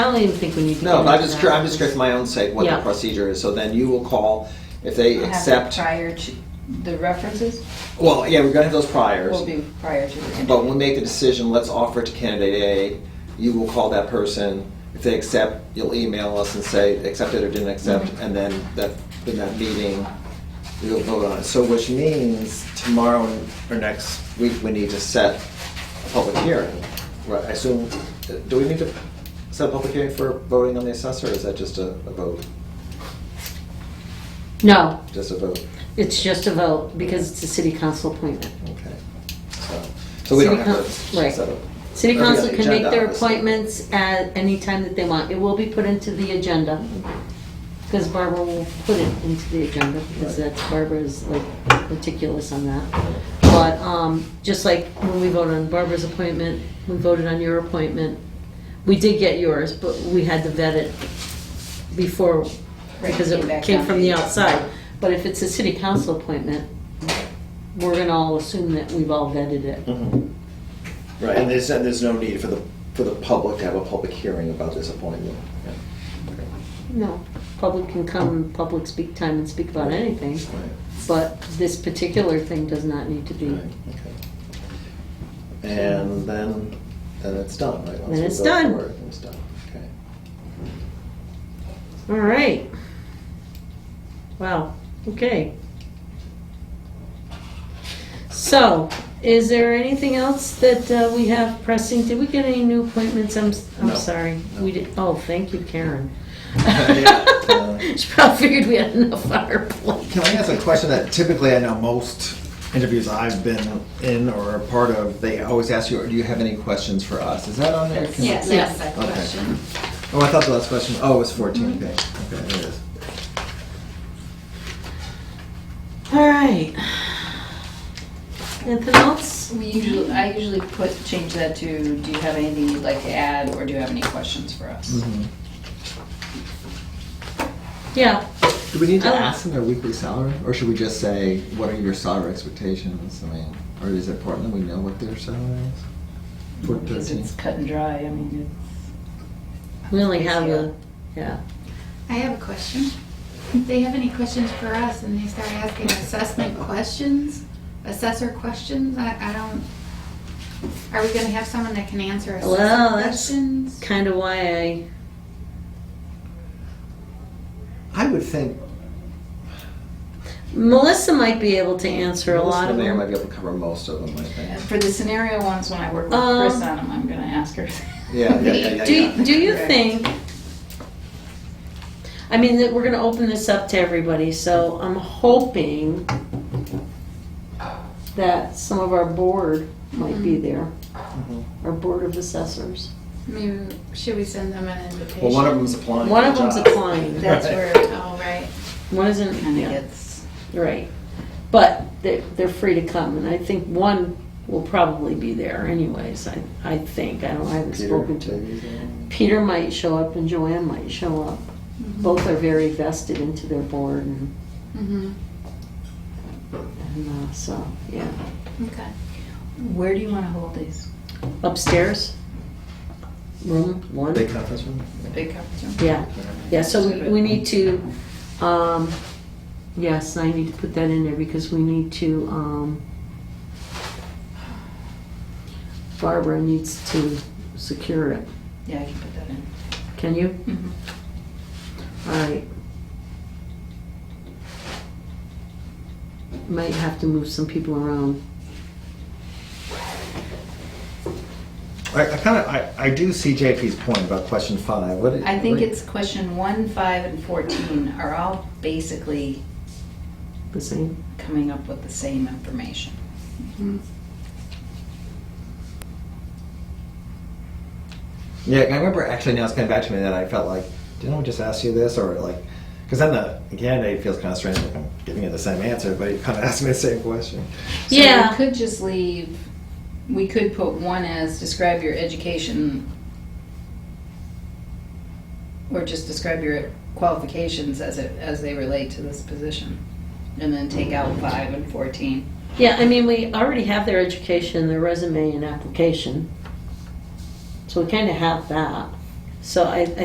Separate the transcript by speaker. Speaker 1: don't even think we need to.
Speaker 2: No,
Speaker 1: get
Speaker 2: but I'm
Speaker 1: into
Speaker 2: just,
Speaker 1: that.
Speaker 2: I'm just curious for my own sake what the
Speaker 1: Yeah.
Speaker 2: procedure is. So then you will call if they
Speaker 3: Have it
Speaker 2: accept.
Speaker 3: Prior to, the references
Speaker 2: Well, yeah, we're gonna have those priors.
Speaker 3: will be prior to the
Speaker 2: But when
Speaker 3: interview.
Speaker 2: we make the decision, let's offer it to candidate A, you will call that person. If they accept, you'll email us and say, accepted or didn't accept,
Speaker 3: Mm-hmm.
Speaker 2: and then that, in that meeting, you'll vote on it. So which means tomorrow or next week, we need to set a public hearing. Right, I assume, do we need to set a public hearing for voting on the assessor, or is that just a, a vote?
Speaker 1: No,
Speaker 2: Just a vote,
Speaker 1: it's just a vote because it's a city council appointment.
Speaker 2: okay. So, so we don't
Speaker 1: City
Speaker 2: have to
Speaker 1: coun- right.
Speaker 2: set up.
Speaker 1: City
Speaker 2: or we have
Speaker 1: council
Speaker 2: the
Speaker 1: can make
Speaker 2: agenda,
Speaker 1: their
Speaker 2: obviously.
Speaker 1: appointments at any time that they want. It will be put into the agenda. Because Barbara will put it into the agenda, because
Speaker 2: Right.
Speaker 1: that's, Barbara's like meticulous on that. But, um, just like when we voted on Barbara's appointment, we voted on your appointment. We did get yours, but we had to vet it before,
Speaker 3: Right,
Speaker 1: because
Speaker 3: came
Speaker 1: it
Speaker 3: back
Speaker 1: came
Speaker 3: down.
Speaker 1: from the outside. But if it's a city council appointment, we're gonna all assume that we've all vetted it.
Speaker 2: Mhm. Right, and there's, and there's no need for the, for the public to have a public hearing about this appointment. Yeah.
Speaker 1: No, public can come, public speak time and speak about anything,
Speaker 2: Right.
Speaker 1: but this particular thing does not need to be.
Speaker 2: Right, okay. And then, then it's done, right? Once we
Speaker 1: it's
Speaker 2: vote
Speaker 1: done.
Speaker 2: for it, It's done, okay.
Speaker 1: All right. Wow, okay. So, is there anything else that uh, we have pressing? Did we get any new appointments? I'm, s- I'm
Speaker 2: No.
Speaker 1: sorry.
Speaker 2: No.
Speaker 1: We did, oh, thank you, Karen.
Speaker 2: Yeah, uh,
Speaker 1: She probably figured we had enough on our plate.
Speaker 4: Can I ask a question that typically I know most interviews I've been in or a part of, they always ask you, do you have any questions for us? Is that on there? Can-
Speaker 5: Yes,
Speaker 1: Yes.
Speaker 5: that's that
Speaker 4: Okay.
Speaker 5: question.
Speaker 4: Oh, I thought the last question, oh, it was
Speaker 1: Mhm.
Speaker 4: 14, okay. Okay, there it is.
Speaker 1: All right. Anything else?
Speaker 3: We usually, I usually put, change that to, do you have anything you'd like to add, or do you have any questions for
Speaker 2: Mm-hmm.
Speaker 3: us?
Speaker 4: Mhm.
Speaker 1: Yeah,
Speaker 4: Do we need to
Speaker 1: Um,
Speaker 4: ask them their weekly salary? Or should we just say, what are your salary expectations? I mean, or is it important that we know what their salary is? For
Speaker 3: Because
Speaker 4: 13?
Speaker 3: it's cut and dry, I mean,
Speaker 1: we only have a, yeah.
Speaker 5: I have a question. If they have any questions for us and they start asking assessment questions, assessor questions, I, I don't, are we gonna have someone that can answer
Speaker 1: Well, that's
Speaker 5: assessment questions?
Speaker 1: Kind of why I,
Speaker 4: I would think,
Speaker 1: Melissa might be able to answer a
Speaker 2: Melissa
Speaker 1: lot of
Speaker 2: Mayer
Speaker 1: them.
Speaker 2: might be able to cover most of them, I
Speaker 3: it's-
Speaker 2: think.
Speaker 3: for the scenario ones, when I work with Chris
Speaker 1: Um,
Speaker 3: on them, I'm gonna ask her.
Speaker 2: Yeah, yeah, yeah, yeah,
Speaker 1: Do,
Speaker 2: yeah.
Speaker 1: do you
Speaker 3: Right.
Speaker 1: think, I mean, that we're gonna open this up to everybody, so I'm hoping that some of our board might
Speaker 3: Mm-hmm.
Speaker 1: be there,
Speaker 4: Mm-hmm.
Speaker 2: Mhm.
Speaker 1: our board of assessors.
Speaker 5: Maybe, should we send them an invitation?
Speaker 2: Well, one of them's applying.
Speaker 1: One
Speaker 2: for
Speaker 1: of
Speaker 2: the
Speaker 1: them's
Speaker 2: job.
Speaker 1: applying.
Speaker 3: That's
Speaker 2: Right.
Speaker 3: where
Speaker 5: Oh, right.
Speaker 1: One
Speaker 3: it
Speaker 1: isn't,
Speaker 3: kinda
Speaker 1: yeah,
Speaker 3: gets,
Speaker 1: right. But they're, they're free to come, and I think one will probably be there anyways, I, I think, I don't, I haven't
Speaker 2: Peter,
Speaker 1: spoken to him.
Speaker 2: Davies, um,
Speaker 1: Peter might show up and Joanne might show up. Both are very vested into their board and,
Speaker 5: Mhm.
Speaker 1: and uh, so, yeah.
Speaker 5: Okay.
Speaker 3: where do you wanna hold these?
Speaker 1: Upstairs, room one.
Speaker 4: big conference room?
Speaker 3: The big conference room?
Speaker 1: Yeah, yeah, so we, we need to, um, yes, I need to put that in there because we need to, um, Barbara needs to secure it.
Speaker 3: Yeah, I can put that in.
Speaker 1: Can you?
Speaker 3: Mhm.
Speaker 1: All right. Might have to move some people around.
Speaker 4: I, I kind of, I, I do see JP's point about question five. What?
Speaker 3: I think
Speaker 4: what-
Speaker 3: it's question one, five, and fourteen are all basically
Speaker 1: The same?
Speaker 3: coming up with the same information.
Speaker 5: Mhm.
Speaker 4: Yeah, I remember actually now it's coming back to me that I felt like, didn't I just ask you this? Or like, because then the candidate feels kind of strange, like I'm giving you the same answer, but you kind of asked me the same question.
Speaker 3: So
Speaker 1: Yeah.
Speaker 3: we could just leave, we could put one as describe your education or just describe your qualifications as it, as they relate to this position. And then take out five and fourteen.
Speaker 1: Yeah, I mean, we already have their education, their resume and application. So we kind of have that. So I,